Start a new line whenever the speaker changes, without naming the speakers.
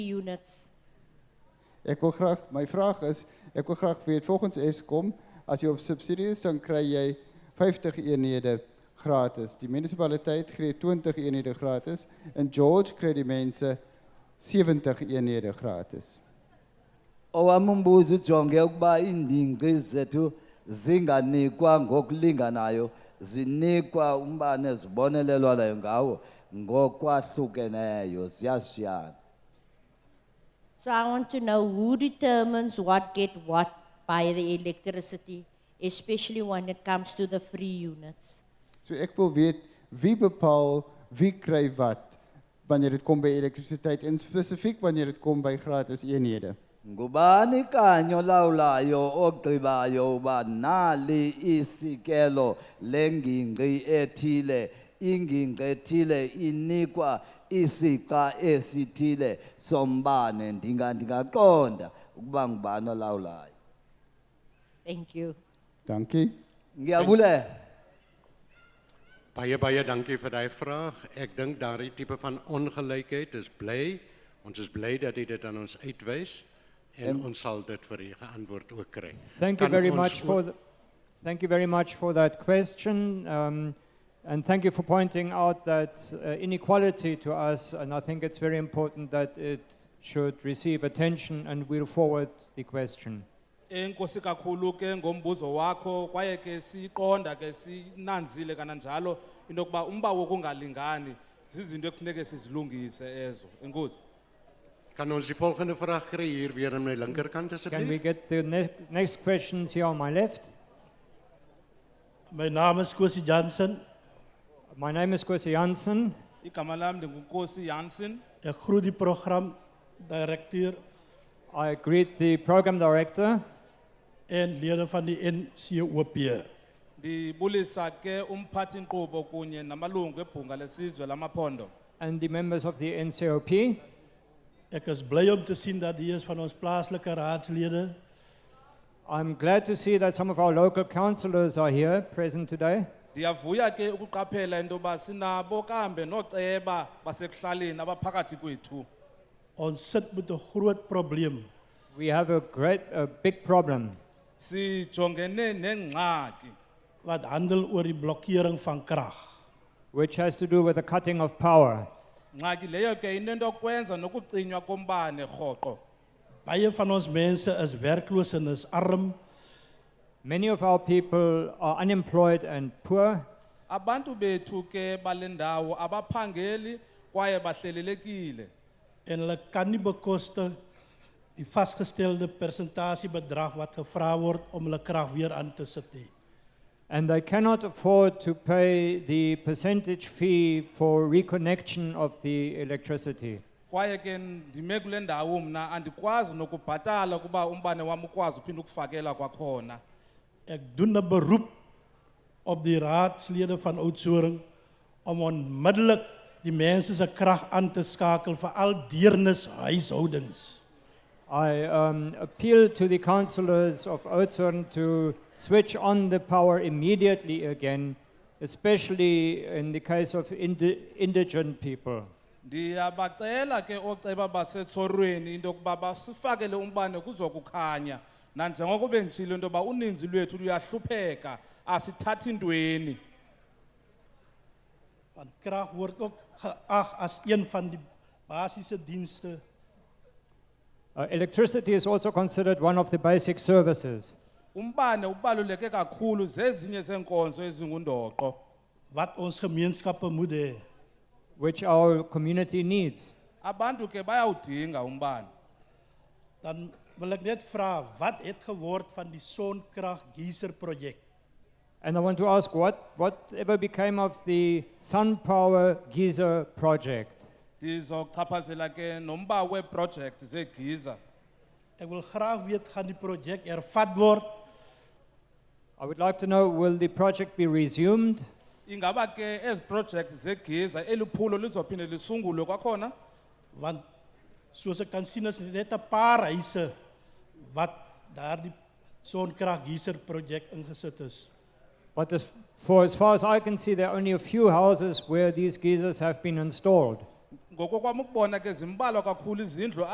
units.
Ek wil graag my vraag is, ek wil graag weet volgens Eskom, as jy op subsidie is dan kry jy 50 eenhede gratis. Die munisipaliteit gee 20 eenhede gratis en George kry die mense 70 eenhede gratis.
Owami umbuzo ujonge ukuba iindingqi zethu zinganikwa ngokulinganayo zinikwa umbane ezibonelelwayo ngawo ngokwahlukeneyo ziyashiyana
So I want to know who determines what get what by the electricity, especially when it comes to the free units.
So ek wil weet wie bepaal wie kry wat wanneer dit kom by elektrisiteit en spesifiek wanneer dit kom by gratis eenhede.
ngubani kanye olawulayo ogqibayo uba nali isikelo lengingqi ethile ingingqi ethile inikwa isixa esithile sombane ndinga ndingaqonda ukuba ngubani olawulayo
Thank you.
Dankie.
ngiyabulela
Baie baie dankie vir daai vraag. Ek dink daardie tipe van ongelykheid is bly. Ons is bly dat jy dit aan ons uitwys en ons sal dit vir u geantwoord ook kry.
Thank you
Kan
very
ons
much
ook-
for, the, thank you very much for that question. Um, and thank you for pointing out that uh, inequality to us, and I think it's very important that it should receive attention, and we'll forward the question.
Enkosi kakhulu ke ngombuzo wakho kwaye ke siqonda ke sinanzile kananjalo into yokuba umba wokungalingani zizinto ekufuneka sizilungise ezo. Enkosi.
Kan ons die volgende vraag kry hier weer aan my linkerkant
Can we
asseblief?
get the ne- next questions here on my left?
Mijn naam is Kwesi Jansen.
My name is Kwesi Jansen.
Igama lam ndinguNkosi Jansen.
Ik groet die programdirecteur
I greet the program director
en leden van die NCOP.
Ndibulisa ke umphathi inkqubo kunye namalungu ebhunga lesizwe lamaphondo.
and the members of the NCOP.
Ik is blij om te zien dat hier is van ons plaatselijke raadsleden
I'm glad to see that some of our local councillors are here present today.
Ndiyavuya ke ukuqaphela into yoba sinabo kambe nooceba basekuhlaleni abaphakathi kwethu.
ons zit met een groot probleem.
We have a great, a big problem.
Sijongene nengxaki
Wat handelt over de blokkering van kracht.
which has to do with the cutting of power.
ngxaki leyo ke inento yokwenza nokucinywa kombane rhoqo
Bijen van ons mensen is werkloos en is arm.
Many of our people are unemployed and poor,
abantu bethu ke bale ndawo abaphangeli kwaye bahlelelekile
En hulle kan niet bekosten die vastgestelde percentagebedrag wat gevraagd wordt om hulle kracht weer aan te zetten.
and they cannot afford to pay the percentage fee for reconnection of the electricity.
kwaye ke ndime kule ndawo mna andikwazi nokubhatala ukuba umbane wam ukwazi uphinda ukufakela kwakhona
Ik doe een beroep op die raadsleden van Oudzoren om onmiddellijk die mensen zijn kracht aan te schakelen voor al deernis huishoudens.
I um, appeal to the councillors of Oudtshoorn to switch on the power immediately again, especially in the case of indi- indigent people.
ndiyabacela ke ooceba basetsorweni into yokuba basifakele umbane kuzokukhanya nanjengoko benditshilo into yoba uninzi lwethu luyahlupheka asithathi ntweni
Want kracht wordt ook geacht als een van de basisdiensten.
Uh, electricity is also considered one of the basic services.
Umbane ubaluleke kakhulu zezinye zenkonzo ezingundoqo.
wat ons gemeenschappen moeten hebben.
which our community needs.
Abantu ke bayawudinga umbane.
Dan wil ik net vragen, wat het geworden van die zonkracht geyser project?
And I want to ask what, whatever became of the Sun Power Giza project?
Ndizochaphazela ke nomba weproject zegiza.
Ik wil graag weten, gaan die project ervat worden?
I would like to know will the project be resumed?
Ingaba ke ezi project zegiza eliphulo lizophinde lisungulwe kwakhona?
Want zoals ik kan zien is het net een paar reizen wat daar die zonkrachtgeyser project ingezet is.
But as, for as far as I can see, there are only a few houses where these geysers have been installed.
Ngokokwam ukubona ke zimbalwa kakhulu izindlu